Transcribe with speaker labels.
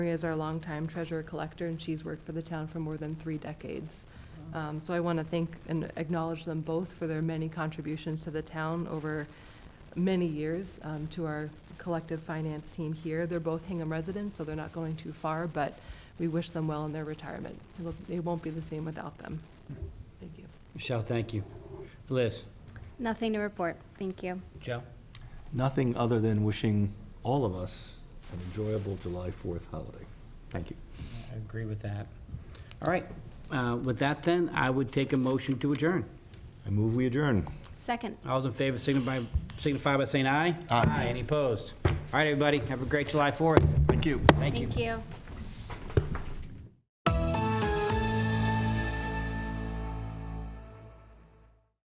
Speaker 1: Maria is our longtime treasurer collector, and she's worked for the town for more than three decades. Um, So I want to thank and acknowledge them both for their many contributions to the town over many years um, to our collective finance team here. They're both Hingham residents, so they're not going too far, but we wish them well in their retirement. It'll- It won't be the same without them. Thank you.
Speaker 2: Michelle, thank you. Liz?
Speaker 3: Nothing to report, thank you.
Speaker 2: Joe?
Speaker 4: Nothing other than wishing all of us an enjoyable July 4th holiday. Thank you.
Speaker 2: I agree with that. All right, uh, with that then, I would take a motion to adjourn.
Speaker 4: I move we adjourn.
Speaker 3: Second.
Speaker 2: All those in favor signify signify by saying aye.
Speaker 4: Aye.
Speaker 2: Any opposed? All right, everybody, have a great July 4th.
Speaker 4: Thank you.
Speaker 2: Thank you.
Speaker 3: Thank you.